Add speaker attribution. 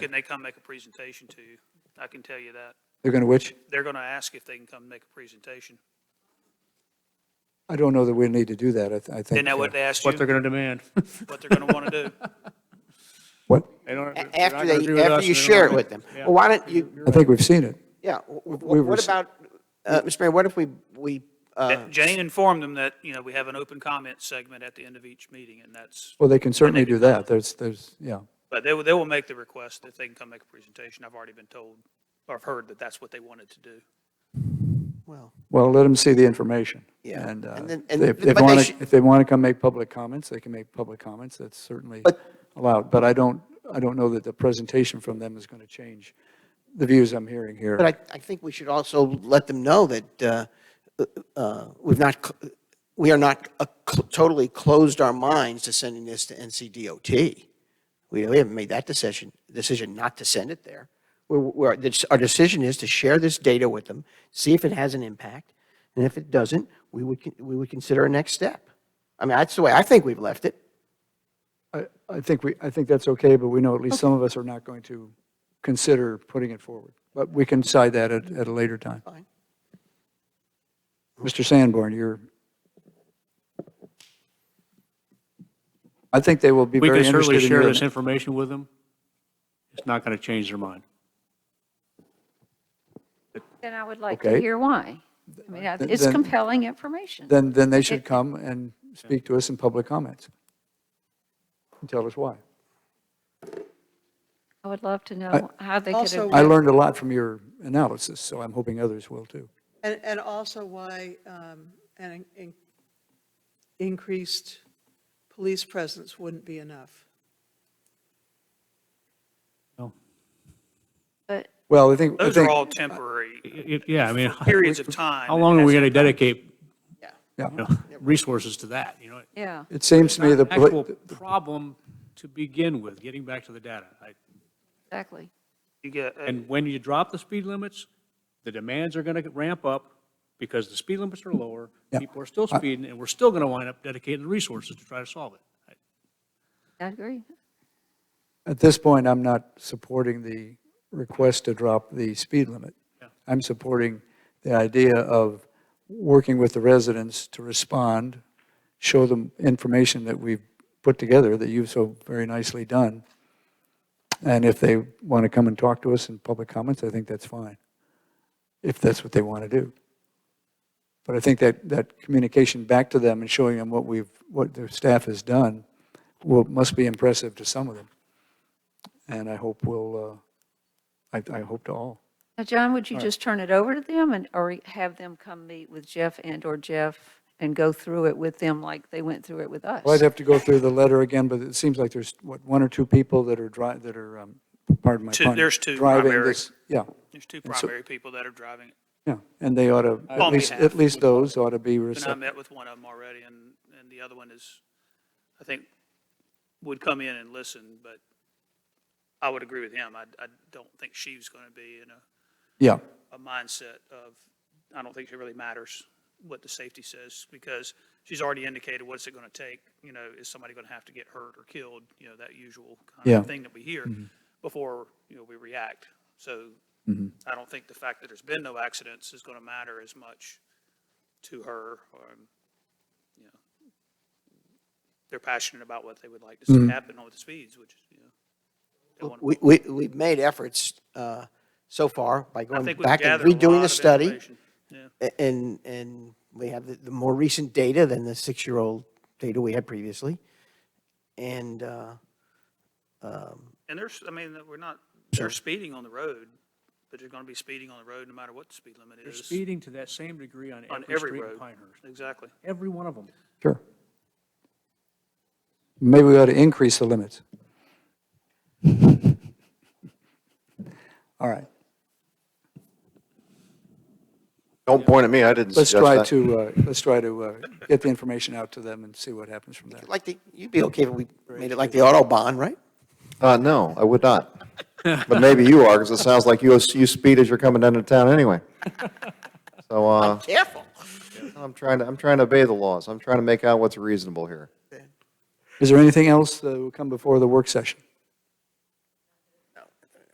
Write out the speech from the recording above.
Speaker 1: Can they come make a presentation to you? I can tell you that.
Speaker 2: They're going to which?
Speaker 1: They're going to ask if they can come make a presentation.
Speaker 2: I don't know that we need to do that. I th- I think.
Speaker 1: Isn't that what
Speaker 2: uh,
Speaker 1: they asked you,
Speaker 3: what they're going to demand.
Speaker 1: what they're going to want to do?
Speaker 2: What?
Speaker 3: They don't- they're not
Speaker 4: After
Speaker 3: gonna agree
Speaker 4: they,
Speaker 3: with
Speaker 4: after
Speaker 3: us,
Speaker 4: you
Speaker 3: they don't
Speaker 4: share it
Speaker 3: wanna-
Speaker 4: with them.
Speaker 3: Yeah.
Speaker 4: Well, why don't you,
Speaker 2: I think we've seen it.
Speaker 4: yeah, w-
Speaker 2: we
Speaker 4: w- what
Speaker 2: rece-
Speaker 4: about, uh, Mr. Mayor, what if we, we, uh,
Speaker 1: Jane informed them that, you know, we have an open comment segment at the end of each meeting, and that's,
Speaker 2: Well, they can certainly do that. There's, there's, yeah.
Speaker 1: but they will, they will make the request if they can come make a presentation. I've already been told, or I've heard that that's what they wanted to do.
Speaker 4: well,
Speaker 2: Well, let them see the information.
Speaker 4: Yeah,
Speaker 2: And uh,
Speaker 4: and then- and-
Speaker 2: if they
Speaker 4: but they
Speaker 2: want
Speaker 4: sh-
Speaker 2: to, if they want to come make public comments, they can make public comments. That's certainly
Speaker 4: But-
Speaker 2: allowed. But I don't, I don't know that the presentation from them is going to change the views I'm hearing here.
Speaker 4: but I, I think we should also let them know that, uh, uh, we've not, cl- we are not uh, cl- totally closed our minds to sending this to NCDOT. We, we haven't made that decision, decision not to send it there. We're, we're, this- our decision is to share this data with them, see if it has an impact, and if it doesn't, we would, con- we would consider a next step. I mean, that's the way I think we've left it.
Speaker 2: I, I think we, I think that's okay, but we know at least some of us are not going to consider putting it forward. But we can decide that at, at a later time.
Speaker 4: Fine.
Speaker 2: Mr. Sanborn, you're. I think they will be
Speaker 3: We
Speaker 2: very
Speaker 3: can
Speaker 2: interested in
Speaker 3: certainly share
Speaker 2: your-
Speaker 3: this information with them. It's not going to change their mind.
Speaker 5: Then I would like to
Speaker 2: Okay.
Speaker 5: hear why. I mean, I-
Speaker 2: Th-
Speaker 5: it's
Speaker 2: then-
Speaker 5: compelling information.
Speaker 2: Then, then they should come and speak to us in public comments. And tell us why.
Speaker 5: I would love to know how they could
Speaker 6: also-
Speaker 5: have.
Speaker 2: I learned a lot from your analysis, so I'm hoping others will too.
Speaker 6: And, and also why um, an in- increased police presence wouldn't be enough.
Speaker 5: But
Speaker 2: Well, I think, I
Speaker 1: Those are
Speaker 2: think,
Speaker 1: all temporary
Speaker 3: It- Yeah, I mean, how
Speaker 1: periods of time.
Speaker 3: long are
Speaker 1: That's-
Speaker 3: we going to dedicate
Speaker 2: yeah,
Speaker 3: you know, resources to that, you know?
Speaker 5: yeah,
Speaker 2: it seems to me the,
Speaker 3: It's not an
Speaker 2: poli-
Speaker 3: Actual problem to begin with, getting back to the data. I-
Speaker 5: exactly.
Speaker 1: You get, uh,
Speaker 3: And when you drop the speed limits, the demands are going to ramp up because the speed limits are lower,
Speaker 2: Yeah.
Speaker 3: people are still speeding, and we're still going to wind up dedicating the resources to try to solve it. I-
Speaker 5: I agree.
Speaker 2: at this point, I'm not supporting the request to drop the speed limit. I'm supporting the idea of working with the residents to respond, show them information that we've put together that you've so very nicely done. And if they want to come and talk to us in public comments, I think that's fine, if that's what they want to do. But I think that, that communication back to them and showing them what we've, what their staff has done will, must be impressive to some of them. And I hope will, uh, I, I hope to all.
Speaker 5: Now, John, would you just turn it over to them and, or have them come meet with Jeff and/or Jeff and go through it with them like they went through it with us?
Speaker 2: Well, I'd have to go through the letter again, but it seems like there's, what, one or two people that are dri, that are, um, pardon my
Speaker 1: Two-
Speaker 2: pun.
Speaker 1: there's two
Speaker 2: driving
Speaker 1: primary.
Speaker 2: this- Yeah,
Speaker 1: There's two
Speaker 2: so-
Speaker 1: primary people that are driving it.
Speaker 2: yeah, and they ought to, at
Speaker 1: On
Speaker 2: least,
Speaker 1: behalf.
Speaker 2: at least those ought to be
Speaker 1: And I
Speaker 2: receptive.
Speaker 1: met with one of them already, and, and the other one is, I think, would come in and listen, but I would agree with him. I, I don't think she's going to be in a,
Speaker 2: Yeah,
Speaker 1: a mindset of, I don't think it really matters what the safety says, because she's already indicated what's it going to take, you know, is somebody going to have to get hurt or killed, you know, that usual kind
Speaker 2: Yeah.
Speaker 1: of thing that we hear
Speaker 4: Mm-hmm.
Speaker 1: before, you know, we react. So
Speaker 4: Mm-hmm.
Speaker 1: I don't think the fact that there's been no accidents is going to matter as much to her or, you know, they're passionate about what they would like to see happen with the speeds, which, you know. they want-
Speaker 4: Mm-hmm. We, we, we've made efforts uh, so far by
Speaker 1: I
Speaker 4: going
Speaker 1: think we've
Speaker 4: um, back and
Speaker 1: gathered a lot
Speaker 4: redoing the
Speaker 1: of
Speaker 4: study.
Speaker 1: information. Yeah.
Speaker 4: a- And, and we have the, the more recent data than the six-year-old data we had previously. And, uh,
Speaker 1: And there's, I mean, we're not, there's speeding on the road, but there's going to be speeding on the road no matter what the speed limit
Speaker 3: They're
Speaker 1: is.
Speaker 3: speeding to that same degree on
Speaker 1: On
Speaker 3: every
Speaker 1: every
Speaker 3: street in
Speaker 1: road.
Speaker 3: Pinehurst,
Speaker 1: Exactly.
Speaker 3: every one of them.
Speaker 2: sure. Maybe we ought to increase the limits. All right,
Speaker 7: Don't point at me, I didn't
Speaker 2: let's
Speaker 7: suggest
Speaker 2: try
Speaker 7: that.
Speaker 2: to, uh, let's try to uh, get the information out to them and see what happens from there.
Speaker 4: like, the- you'd be okay if we made it like the Autobahn, right?
Speaker 7: Uh, no, I would not. But maybe you are, because it sounds like you, you speed as you're coming down to town anyway. So, uh,
Speaker 4: Careful.
Speaker 7: I'm trying to, I'm trying to obey the laws. I'm trying to make out what's reasonable here.
Speaker 2: Is there anything else that will come before the work session?